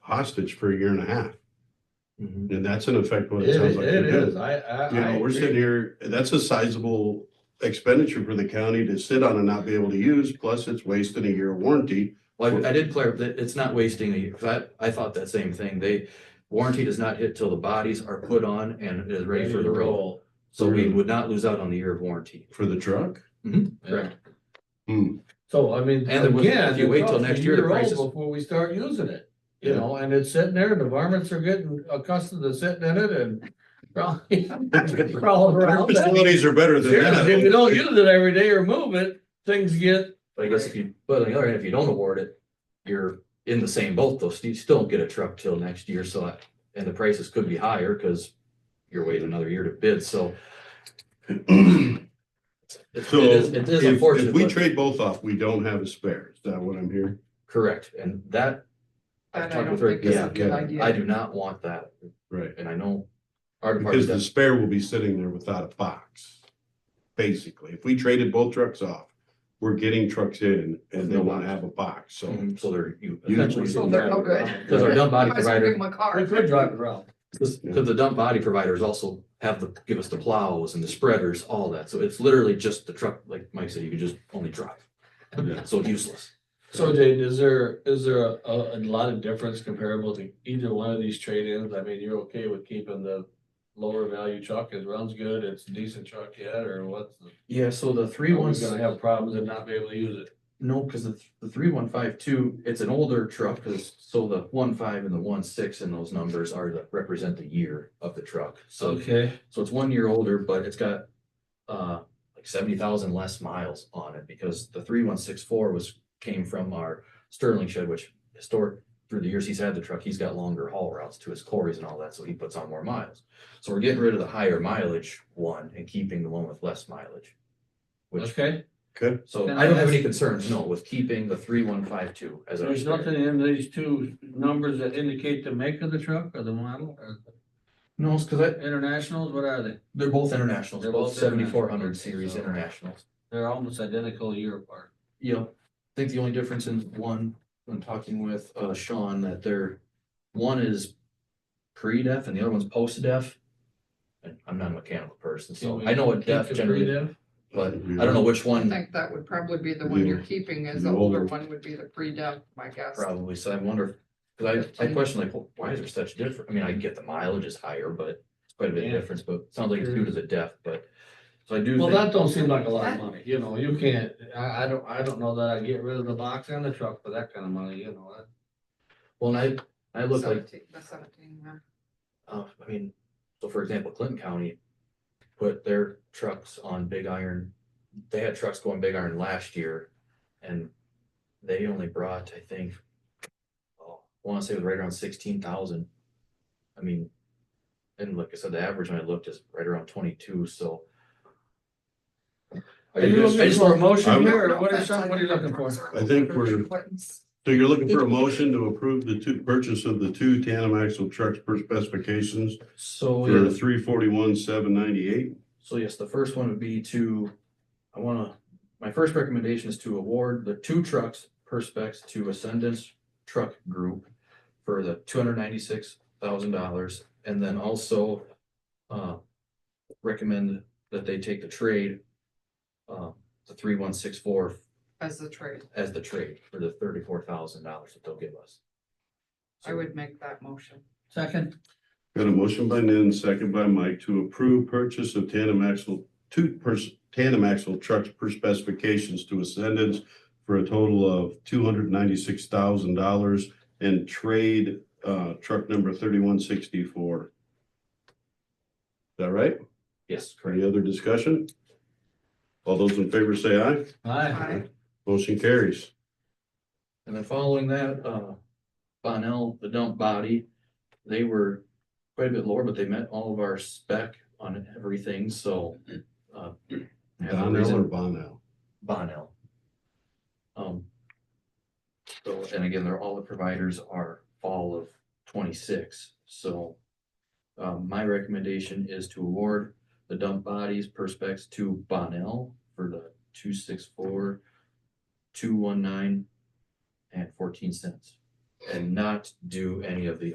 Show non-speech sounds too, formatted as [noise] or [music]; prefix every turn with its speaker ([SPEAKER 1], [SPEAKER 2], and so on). [SPEAKER 1] hostage for a year and a half.
[SPEAKER 2] Mhm.
[SPEAKER 1] And that's in effect what
[SPEAKER 2] It
[SPEAKER 1] it sounds
[SPEAKER 2] is,
[SPEAKER 1] like.
[SPEAKER 2] it
[SPEAKER 1] they're doing.
[SPEAKER 2] is, I, I.
[SPEAKER 1] You
[SPEAKER 2] I
[SPEAKER 1] know, we're
[SPEAKER 2] agree.
[SPEAKER 1] sitting here, that's a sizable expenditure for the county to sit on and not be able to use, plus it's wasting a year of warranty.
[SPEAKER 2] Well, I I did clarify that it's not wasting a year, 'cause I, I thought that same thing. They, warranty does not hit till the bodies are put on and it is ready for the road. So we would not lose out on the year of warranty.
[SPEAKER 1] For the truck?
[SPEAKER 2] Correct.
[SPEAKER 1] Hmm,
[SPEAKER 3] So I mean,
[SPEAKER 2] And there was-
[SPEAKER 3] again,
[SPEAKER 2] if you wait till
[SPEAKER 3] it's
[SPEAKER 2] next
[SPEAKER 3] a
[SPEAKER 2] year, the
[SPEAKER 3] old
[SPEAKER 2] prices-
[SPEAKER 3] Before we start using it, you
[SPEAKER 2] Yeah.
[SPEAKER 3] know, and it's sitting there and the varmints are getting accustomed to sitting in it and [laughs] probably crawling
[SPEAKER 1] Our
[SPEAKER 3] around.
[SPEAKER 1] Facilities are better than
[SPEAKER 3] Seriously, If you
[SPEAKER 1] that.
[SPEAKER 3] don't use it every day or move it, things get,
[SPEAKER 2] But I guess if you, but on the other hand, if you don't award it, you're in the same boat though. You still don't get a truck till next year, so I- and the prices could be higher because you're waiting another year to bid, so
[SPEAKER 1] [clears throat]
[SPEAKER 2] it's-
[SPEAKER 1] So
[SPEAKER 2] it is, it
[SPEAKER 1] if,
[SPEAKER 2] is
[SPEAKER 1] if
[SPEAKER 2] unfortunate,
[SPEAKER 1] we
[SPEAKER 2] but-
[SPEAKER 1] trade both off, we don't have a spare. Is that what I'm hearing?
[SPEAKER 2] correct, and that. I've
[SPEAKER 4] That
[SPEAKER 2] talked
[SPEAKER 4] I don't
[SPEAKER 2] with Rick,
[SPEAKER 4] think is
[SPEAKER 1] yeah,
[SPEAKER 4] a good
[SPEAKER 1] yeah.
[SPEAKER 4] idea.
[SPEAKER 2] I do not want that,
[SPEAKER 1] Right.
[SPEAKER 2] and I know our department
[SPEAKER 1] Because the
[SPEAKER 2] does,
[SPEAKER 1] spare will be sitting there without a box. Basically, if we traded both trucks off, we're getting trucks in and they
[SPEAKER 2] No
[SPEAKER 1] want to
[SPEAKER 2] box.
[SPEAKER 1] have a box, so.
[SPEAKER 2] Mhm, so there you
[SPEAKER 1] You-
[SPEAKER 2] essentially.
[SPEAKER 4] So they're
[SPEAKER 2] [laughs]
[SPEAKER 4] no good.
[SPEAKER 2] Because our dump body
[SPEAKER 4] Otherwise, I'll give
[SPEAKER 2] provider,
[SPEAKER 4] them a
[SPEAKER 3] we
[SPEAKER 4] car.
[SPEAKER 3] could drive it around.
[SPEAKER 2] because the dump body providers also have the, give us the plows and the spreaders, all that, so it's literally just the truck, like Mike said, you can just only drive.
[SPEAKER 1] Yeah.
[SPEAKER 2] So useless.
[SPEAKER 3] So Jane, is there, is there a, a lot of difference comparable to either one of these trade-ins? I mean, you're okay with keeping the lower value truck? It runs good, it's a decent truck yet, or what's? the-
[SPEAKER 2] Yeah, so the three
[SPEAKER 3] Are we gonna have problems and not be able to use it?
[SPEAKER 2] No, because the, the three one five two, it's an older truck, because so the one five and the one six and those numbers are the, represent the year of the truck. So,
[SPEAKER 3] Okay.
[SPEAKER 2] so it's one year older, but it's got, uh, like seventy thousand less miles on it, because the three one six four was, came from our Sterling shed, which historic, through the years he's had the truck, he's got longer haul routes to his quarries and all that, so he puts on more miles. So we're getting rid of the higher mileage one and keeping the one with less mileage. Which
[SPEAKER 3] Okay,
[SPEAKER 1] Good.
[SPEAKER 2] so
[SPEAKER 3] Then
[SPEAKER 2] I don't have
[SPEAKER 3] that's-
[SPEAKER 2] any concerns, no, with keeping the three one five two as our
[SPEAKER 3] there's
[SPEAKER 2] standard.
[SPEAKER 3] nothing in these two numbers that indicate the make of the truck or the model or
[SPEAKER 2] No, it's cause I,
[SPEAKER 3] internationals, what are they?
[SPEAKER 2] they're both internationals,
[SPEAKER 3] They're
[SPEAKER 2] both
[SPEAKER 3] both international.
[SPEAKER 2] seventy four hundred series
[SPEAKER 3] So-
[SPEAKER 2] internationals.
[SPEAKER 3] They're almost identical a year apart.
[SPEAKER 2] Yep. I think the only difference in one, when talking with uh Sean, that they're, one is pre-def and the other one's post-def. And I'm not a mechanical person, so I know what def generally, but I don't know which
[SPEAKER 4] I
[SPEAKER 2] one
[SPEAKER 4] think that would probably be the one you're keeping as the
[SPEAKER 1] The older-
[SPEAKER 4] older one would be the pre-dump, my guess.
[SPEAKER 2] probably, so I wonder. Cause I, I question like, well, why is there such difference? I mean, I get the mileage is higher, but it's quite a bit
[SPEAKER 3] Yeah.
[SPEAKER 2] difference, but it sounds like it's due to the def, but. So I do
[SPEAKER 3] Well,
[SPEAKER 2] think.
[SPEAKER 3] that don't seem like a lot of money, you know, you can't, I, I don't, I don't know that I'd get rid of the box and the truck for that kind of money, you know. that-
[SPEAKER 2] Well, and I, I look like,
[SPEAKER 4] Seventeen, the seventeen, yeah.
[SPEAKER 2] uh, I mean, so for example, Clinton County put their trucks on Big Iron. They had trucks going Big Iron last year and they only brought, I think, oh, I want to say it was right around sixteen thousand. I mean, and like I said, the average when I looked is right around twenty-two, so.
[SPEAKER 3] Are you
[SPEAKER 2] I
[SPEAKER 3] looking
[SPEAKER 2] just-
[SPEAKER 3] for a motion
[SPEAKER 1] I'm-
[SPEAKER 3] here, or what is, some- what are you looking for?
[SPEAKER 1] I think we're- So you're looking for a motion to approve the two, purchase of the two tandem axle trucks per specifications
[SPEAKER 2] So.
[SPEAKER 1] for three forty-one, seven ninety-eight?
[SPEAKER 2] So yes, the first one would be to, I wanna, my first recommendation is to award the two trucks per specs to Ascendance Truck Group for the two hundred ninety-six thousand dollars, and then also uh, recommend that they take the trade uh, the three one six four
[SPEAKER 4] As the trade,
[SPEAKER 2] as the trade for the thirty-four thousand dollars that they'll give us.
[SPEAKER 4] I would make that motion.
[SPEAKER 3] Second,
[SPEAKER 1] Got a motion by Nan, second by Mike to approve purchase of tandem axle, two pers- tandem axle trucks per specifications to Ascendants for a total of two hundred ninety-six thousand dollars and trade, uh, truck number thirty-one sixty-four. Is that right?
[SPEAKER 2] Yes,
[SPEAKER 1] Any
[SPEAKER 2] correct.
[SPEAKER 1] other discussion? All those in favor say aye.
[SPEAKER 3] aye,
[SPEAKER 4] Aye.
[SPEAKER 1] Motion carries.
[SPEAKER 2] And then following that, uh, Bonnell, the dump body, they were quite a bit lower, but they met all of our spec on everything, so. uh, have no
[SPEAKER 1] Donnell or
[SPEAKER 2] reason-
[SPEAKER 1] Bonnell?
[SPEAKER 2] Bonnell. Um. So, and again, they're, all the providers are fall of twenty-six, so. Um, my recommendation is to award the dump bodies per specs to Bonnell for the two six four, two one nine, and fourteen cents. and not do any of the